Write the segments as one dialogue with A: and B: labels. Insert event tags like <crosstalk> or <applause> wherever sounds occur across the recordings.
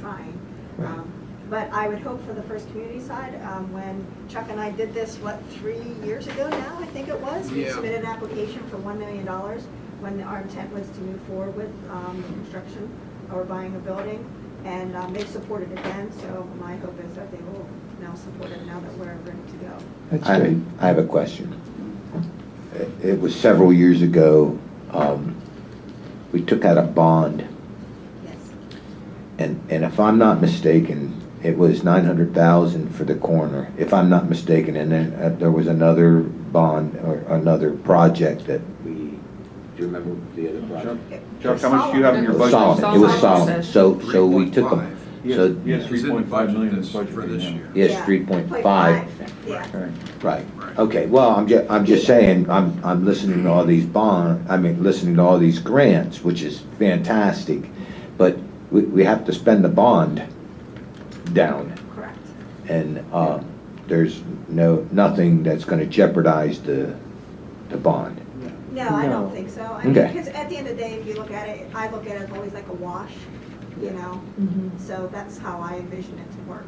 A: trying.
B: Right.
A: Um, But I would hope for the first community side, um, when Chuck and I did this, what, three years ago now, I think it was? We
C: Yeah.
A: submitted an application for one million dollars when our intent was to move forward with um, the construction or buying a building. And um, they supported it then, so my hope is that they will now support it now that we're ready to go.
B: That's
D: I,
B: great.
D: I have a question. It- It was several years ago, um, we took out a bond,
A: Yes.
D: and, and if I'm not mistaken, it was nine hundred thousand for the corner, if I'm not mistaken, and then uh, there was another bond or another project that we, do you remember the other project?
E: Chuck, how much do you have in your
D: It
E: budget?
D: was Solomon, it was
F: Solomon.
D: Solomon, so, so we took them,
C: 3.5.
D: Yes, so-
E: Yes,
C: It's
E: three
C: in the
E: point five
C: budget
E: million is
C: this-
E: budgeted
C: For this
E: now.
C: year.
D: yes,
A: Yeah.
D: three point five.
A: Yeah.
E: Okay.
D: Right,
C: Right.
D: okay, well, I'm ju, I'm just saying, I'm, I'm listening to all these bond, I mean, listening to all these grants, which is fantastic, but we, we have to spend the bond down,
A: Correct.
D: and, uh, there's no, nothing that's gonna jeopardize the, the bond.
A: No, I
B: No.
A: don't think so. I mean,
D: Okay.
A: because at the end of the day, if you look at it, I look at it as always like a wash, you know?
B: Mm-hmm.
A: So that's how I envision it to work.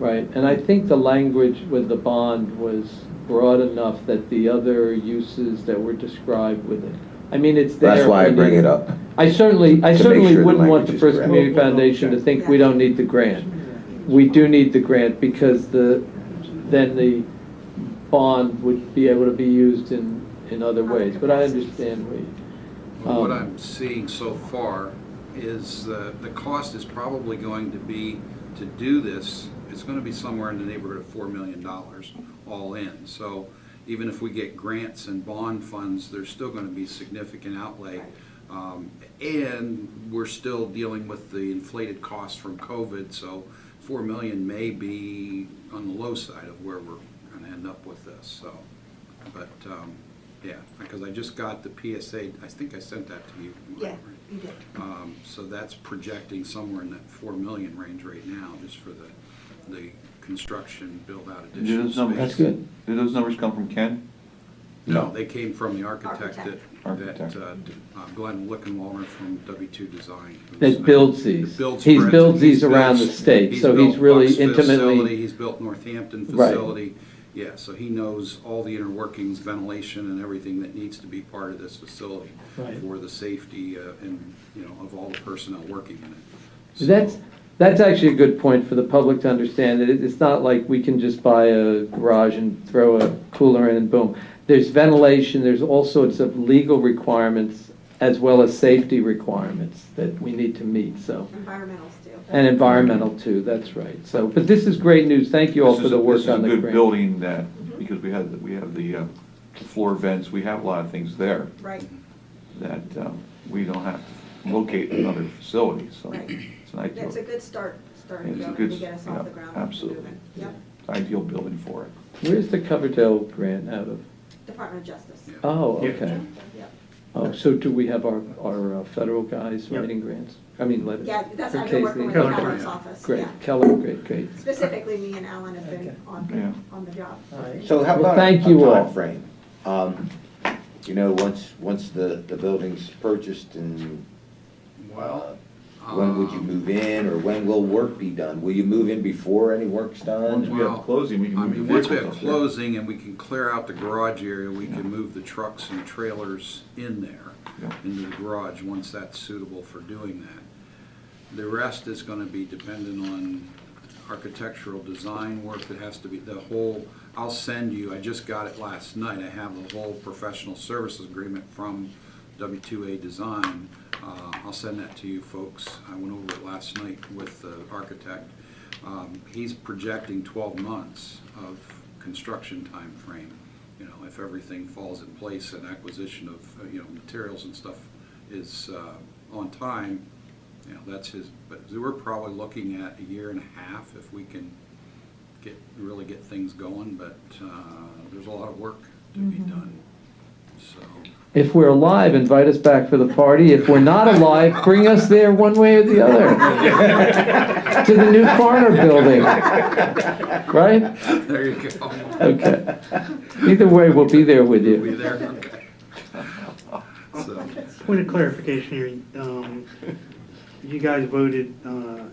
G: Right, and I think the language with the bond was broad enough that the other uses that were described with it. I mean, it's there.
D: That's why I
G: when
D: bring
G: you-
D: it up.
G: I certainly, I
D: to make
G: certainly
D: sure the
G: wouldn't want
D: language
G: the
D: is
G: First
D: correct.
G: Community
B: We'll- we'll
G: Foundation to
B: check.
G: think we don't need the grant. We do need the grant because the, then the bond would be able to be used in, in other ways. But I understand where you,
C: Well, What
G: Um,
C: I'm seeing so far is uh, the cost is probably going to be, to do this, it's going to be somewhere in the neighborhood of $4 million all in. So even if we get grants and bond funds, there's still going to be significant outlay. Um, And we're still dealing with the inflated costs from COVID, so 4 million may be on the low side of where we're going to end up with this, so. But, um, yeah, because I just got the PSA, I think I sent that to you. Mike,
A: Yeah,
C: right?
A: you did.
C: Um, So that's projecting somewhere in that four million range right now, just for the, the construction build-out
E: Do
C: additional
E: those numbers?
C: space.
D: That's good.
E: Do those numbers come from Ken?
C: No, they came from the architect that,
E: Architect.
C: that uh, d- uh, Glenn Lickenwalmer from W2 Design. who's
G: That
C: the-
G: builds these.
C: that builds
G: He's
C: Princeton.
G: builds these
C: He's
G: around the
C: built-
G: state, so
C: built
G: he's really
C: Bucks
G: intimately-
C: facility, He's built Northampton
G: Right.
C: facility. Yeah, so he knows all the inner workings, ventilation and everything that needs to be part of this facility
G: Right.
C: for the safety uh, and, you know, of all the personnel working in it. So-
G: That's, that's actually a good point for the public to understand, that it- it's not like we can just buy a garage and throw a cooler in and boom. There's ventilation, there's all sorts of legal requirements as well as safety requirements that we need to meet, so.
A: Environmentals do.
G: And environmental too, that's right, so, but this is great news, thank you all
E: This
G: for
E: is
G: the
E: a-
G: work on
E: This
G: the
E: is a good
G: grant.
E: building that,
A: Mm-hmm.
E: because we have, the- we have the uh, floor vents, we have a lot of things there
A: Right,
E: that um, we don't have to locate in other facilities, so
A: Right.
E: it's an ideal,
A: that's a good start, starting
E: It's a
A: going
E: good
A: to get us off
E: s-
A: the
E: yeah,
A: ground.
E: absolutely.
A: moving. Yep,
E: ideal building for it.
G: Where's the Coverdale grant out of?
A: Department of Justice.
C: Yeah.
G: Oh,
E: Yeah.
G: okay.
A: Yep.
G: Oh, so do we have our, our uh, federal guys
B: Yep.
G: writing grants? I mean, letters?
A: Yeah, that's,
G: for
A: I've been
G: case
A: working with
G: they-
A: the
B: Keller,
A: governor's
C: yeah.
A: office,
G: Great,
A: yeah.
G: Keller, great, great.
A: Specifically, me and Alan have been
B: Okay.
E: Yeah.
A: on, on the job.
B: All right.
D: So how
G: Well,
D: about a
G: thank you all.
D: timeframe? Um, You know, once, once the, the building's purchased and uh,
C: Well,
D: When would you
C: um,
D: move in, or when will work be done? Will you move in before any work's
E: Once
D: done?
E: we have
C: Well,
E: closing, we can
C: I
E: move the
C: mean, once we have
E: vehicles up there.
C: closing and we can clear out the garage area, we can move the trucks and trailers in there,
E: Yeah.
C: into the garage, once that's suitable for doing that. The rest is gonna be dependent on architectural design work that has to be, the whole, I'll send you, I just got it last night, I have the whole professional services agreement from W2A Design. Uh, I'll send that to you folks, I went over it last night with the architect. Um, He's projecting 12 months of construction time frame. you know, if everything falls in place and acquisition of, uh, you know, materials and stuff is uh, on time, you know, that's his, but we're probably looking at a year and a half if we can get, really get things going, but uh, there's a lot of work to be done, so. <laughs>
G: If we're alive, invite us back for the party. If we're not alive, bring us there one way or the
A: <laughs>
G: other. <laughs> To the new corner building.
D: <laughs>
G: Right?
C: There you go.
G: Okay. Either way, we'll be there with
C: We
G: you.
C: there, okay. So,
B: Point of clarification here, um, you guys voted, uh,